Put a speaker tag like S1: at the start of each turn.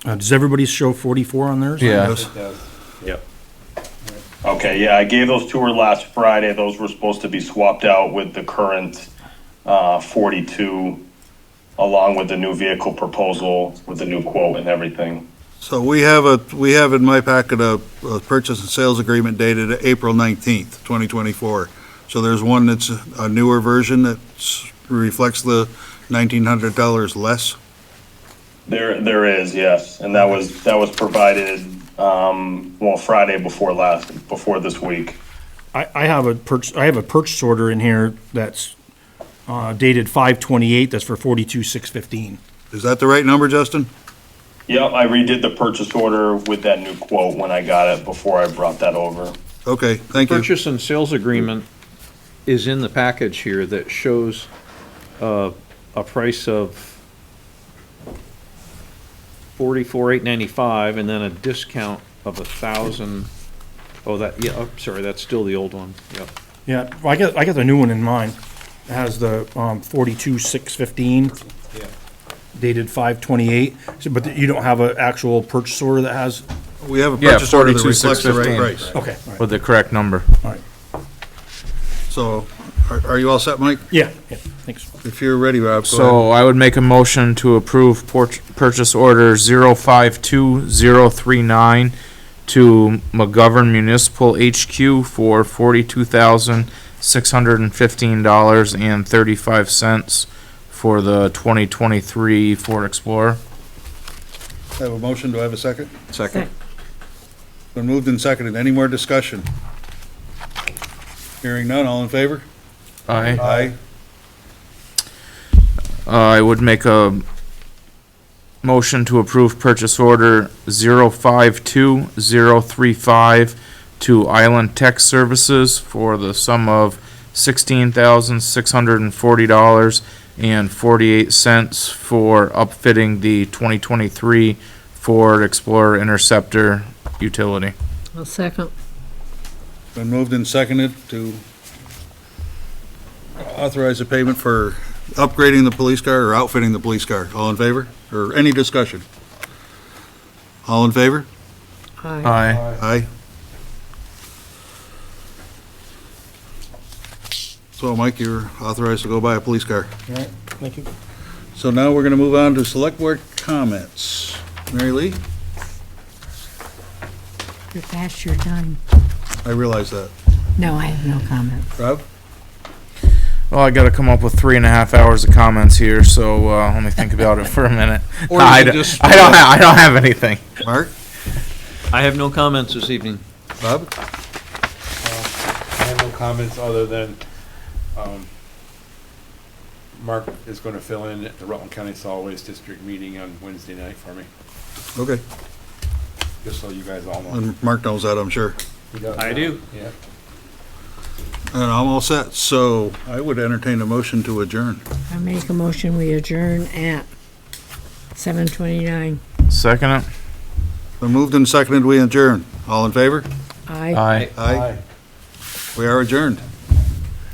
S1: Uh, does everybody show forty-four on theirs?
S2: Yeah.
S3: Yep. Okay, yeah, I gave those to her last Friday. Those were supposed to be swapped out with the current uh, 42, along with the new vehicle proposal, with the new quote and everything.
S4: So we have a, we have in my packet a, a purchase and sales agreement dated April 19th, 2024. So there's one that's a newer version that reflects the $1,900 less.
S3: There, there is, yes, and that was, that was provided, um, well, Friday before last, before this week.
S1: I, I have a purch, I have a purchase order in here that's, uh, dated five twenty-eight, that's for forty-two, six fifteen.
S4: Is that the right number, Justin?
S3: Yep, I redid the purchase order with that new quote when I got it, before I brought that over.
S4: Okay, thank you.
S2: Purchase and sales agreement is in the package here that shows uh, a price of forty-four eight ninety-five and then a discount of a thousand. Oh, that, yeah, I'm sorry, that's still the old one, yep.
S1: Yeah, I got, I got the new one in mind. It has the, um, forty-two, six fifteen. Dated five twenty-eight, but you don't have an actual purchase order that has,
S4: We have a
S5: Yeah,
S4: purchase order that
S5: 42,615.
S4: reflects the right price.
S1: okay, all right,
S5: With the correct number.
S1: all right.
S4: So are, are you all set, Mike?
S1: Yeah, yeah, thanks.
S4: If you're ready, Rob, go ahead.
S5: So I would make a motion to approve porch, purchase order zero five two zero three nine to McGovern Municipal HQ for forty-two thousand, six hundred and fifteen dollars and thirty-five cents for the twenty twenty-three Ford Explorer.
S4: I have a motion, do I have a second?
S2: Second.
S4: Been moved and seconded, any more discussion? Hearing none, all in favor?
S5: Aye.
S4: Aye.
S5: Uh, I would make a motion to approve purchase order 052035 to Island Tech Services for the sum of $16,640.48 for upfitting the 2023 Ford Explorer Interceptor utility.
S6: I'll second.
S4: Been moved and seconded to authorize a payment for upgrading the police car or outfitting the police car. All in favor? Or any discussion? All in favor?
S6: Aye.
S5: Aye.
S4: Aye. So, Mike, you're authorized to go buy a police car.
S1: All right, thank you.
S4: So now we're going to move on to select board comments. Mary Lee,
S7: You're fast, you're done.
S4: I realize that.
S7: No, I have no comment.
S4: Rob?
S5: Well, I gotta come up with three and a half hours of comments here, so, uh, let me think about it for a minute.
S2: Or you
S5: I
S2: could
S5: don't,
S2: just-
S5: I don't, ha- I don't have anything.
S4: Mark?
S2: I have no comments this evening.
S4: Bob?
S8: I have no comments other than, um, Mark is gonna fill in at the Rutland County Solid Waste District meeting on Wednesday night for me,
S4: Okay.
S8: just so you guys all know.
S4: And Mark knows that, I'm sure.
S2: I do.
S8: Yeah.
S4: And I'm all set, so I would entertain a motion to adjourn.
S7: I make a motion, we adjourn at seven twenty-nine.
S5: Second it.
S4: Been moved and seconded, we adjourn. All in favor?
S7: Aye.
S5: Aye.
S4: Aye. We are adjourned.